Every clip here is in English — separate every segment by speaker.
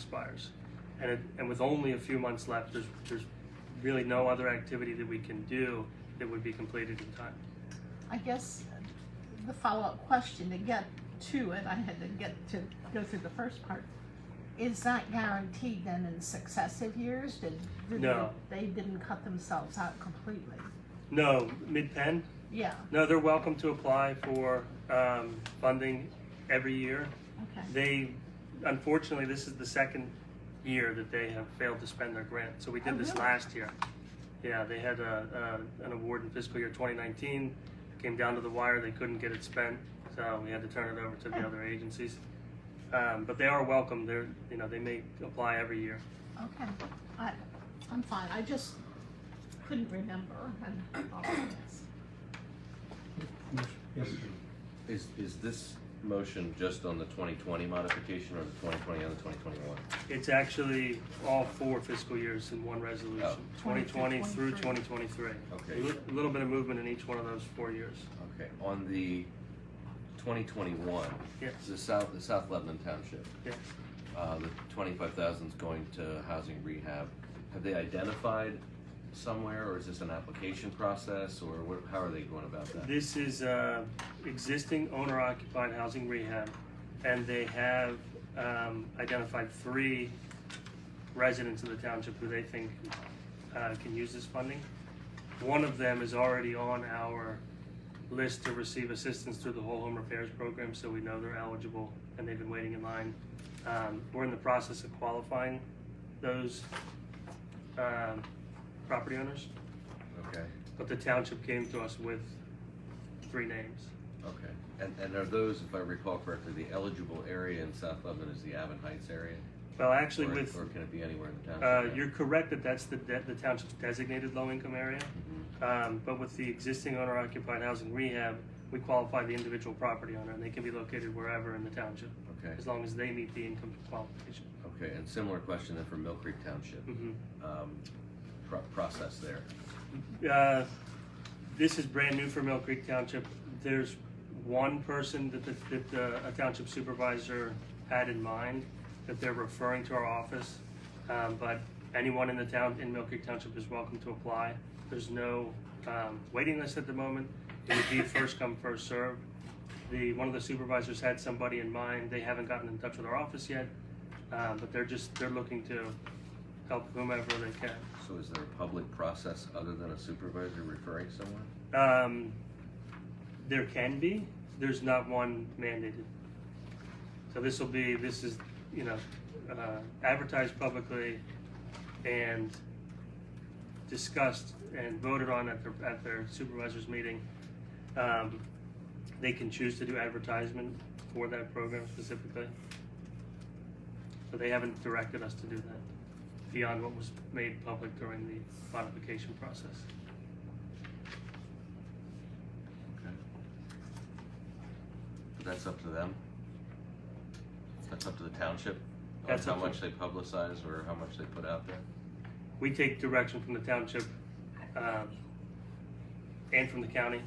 Speaker 1: expires. And, it, and with only a few months left, there's, there's really no other activity that we can do that would be completed in time.
Speaker 2: I guess the follow-up question to get to it, I had to get to go through the first part. Is that guaranteed then in successive years? Did, did
Speaker 1: No.
Speaker 2: they, they didn't cut themselves out completely?
Speaker 1: No, mid-pen,
Speaker 2: Yeah.
Speaker 1: no, they're welcome to apply for, um, funding every year.
Speaker 2: Okay.
Speaker 1: They, unfortunately, this is the second year that they have failed to spend their grant. So we
Speaker 2: Oh,
Speaker 1: did this
Speaker 2: really?
Speaker 1: last year. Yeah, they had a, a, an award in fiscal year 2019, came down to the wire, they couldn't get it spent, so we had to turn it over to the
Speaker 2: Oh.
Speaker 1: other agencies. Um, but they are welcome, they're, you know, they may apply every year.
Speaker 2: Okay. I, I'm fine. I just couldn't remember and all of this.
Speaker 3: Yes,
Speaker 4: Is, is this motion just on the twenty twenty modification or the twenty twenty and the twenty twenty-one?
Speaker 1: It's actually all four fiscal years in one resolution,
Speaker 4: Oh.
Speaker 1: 2020 through
Speaker 2: 2023.
Speaker 1: 2023.
Speaker 4: Okay.
Speaker 1: A li- little bit of movement in each one of those four years.
Speaker 4: Okay, on the twenty twenty-one,
Speaker 1: Yes.
Speaker 4: the South, the South Lebanon Township,
Speaker 1: Yeah.
Speaker 4: uh, the twenty-five thousand's going to housing rehab. Have they identified somewhere or is this an application process or what, how are they going about that?
Speaker 1: This is uh, existing owner-occupied housing rehab, and they have um, identified three residents of the township who they think uh, can use this funding. One of them is already on our list to receive assistance through the whole home repairs program, so we know they're eligible, and they've been waiting in line. Um, We're in the process of qualifying those um, property owners,
Speaker 4: Okay,
Speaker 1: but the township came to us with three names.
Speaker 4: okay. And, and are those, if I recall correctly, the eligible area in South Lebanon is the Avon Heights area?
Speaker 1: Well, actually,
Speaker 4: Or-
Speaker 1: with,
Speaker 4: Or can it be anywhere in the
Speaker 1: uh,
Speaker 4: township?
Speaker 1: you're correct that that's the, de- the township's designated low-income area.
Speaker 4: Mhm.
Speaker 1: Um, but with the existing owner-occupied housing rehab, we qualify the individual property owner, and they can be located wherever in the township,
Speaker 4: Okay.
Speaker 1: as long as they meet the income qualification.
Speaker 4: Okay, and similar question then for Mill Creek Township,
Speaker 1: Mhm.
Speaker 4: um, pro- process there.
Speaker 1: Uh, this is brand new for Mill Creek Township. There's one person that the, that the, a township supervisor had in mind that they're referring to our office. Um, but anyone in the town, in Mill Creek Township is welcome to apply. There's no, um, waiting list at the moment. It would be first come, first served. The, one of the supervisors had somebody in mind. They haven't gotten in touch with our office yet. Um, but they're just, they're looking to help whomever they can.
Speaker 4: So is there a public process other than a supervisor referring someone?
Speaker 1: Um, there can be. There's not one mandated. So this will be. This is you know uh, advertised publicly and discussed and voted on at their at their supervisors meeting. Um, they can choose to do advertisement for that program specifically. So they haven't directed us to do that beyond what was made public during the modification process.
Speaker 4: Okay. But that's up to them? That's up to the township? on
Speaker 1: That's
Speaker 4: How
Speaker 1: up to-
Speaker 4: much they publicize or how much they put out there?
Speaker 1: We take direction from the township um, and from the county.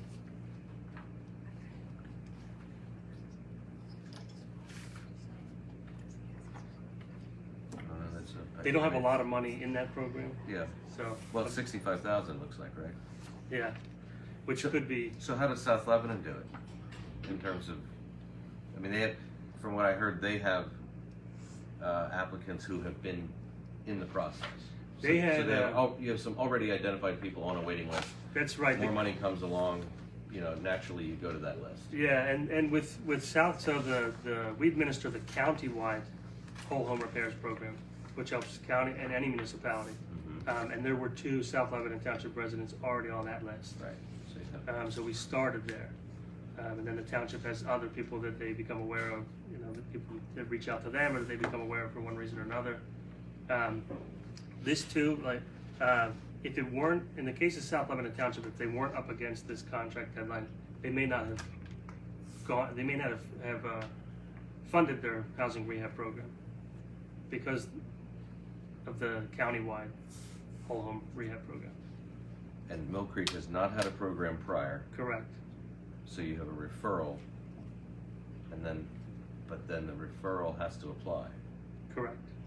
Speaker 4: I don't know, that's a-
Speaker 1: They don't have a lot of money in that program,
Speaker 4: Yeah,
Speaker 1: so,
Speaker 4: well, sixty-five thousand looks like, right?
Speaker 1: yeah, which could be,
Speaker 4: So how does South Lebanon do it in terms of? I mean, they have, from what I heard, they have uh, applicants who have been in the process. So-
Speaker 1: They
Speaker 4: So
Speaker 1: had,
Speaker 4: they have,
Speaker 1: uh,
Speaker 4: al- you have some already identified people on a waiting list.
Speaker 1: that's right.
Speaker 4: More money comes along, you know, naturally you go to that list.
Speaker 1: Yeah, and, and with, with South, so the, the, we administer the countywide whole home repairs program, which helps county and any municipality.
Speaker 4: Mm-hmm.
Speaker 1: Um, And there were two South Lebanon Township residents already on that list.
Speaker 4: Right. So you have,
Speaker 1: Um, so we started there. Um, and then the township has other people that they become aware of, you know, that people that reach out to them or that they become aware of for one reason or another. Um, this too, like, uh, if it weren't, in the case of South Lebanon Township, if they weren't up against this contract deadline, they may not have gone, they may not have, have, uh, funded their housing rehab program because of the countywide whole home rehab program.
Speaker 4: and Mill Creek has not had a program prior,
Speaker 1: Correct.
Speaker 4: so you have a referral, and then, but then the referral has to apply.
Speaker 1: Correct.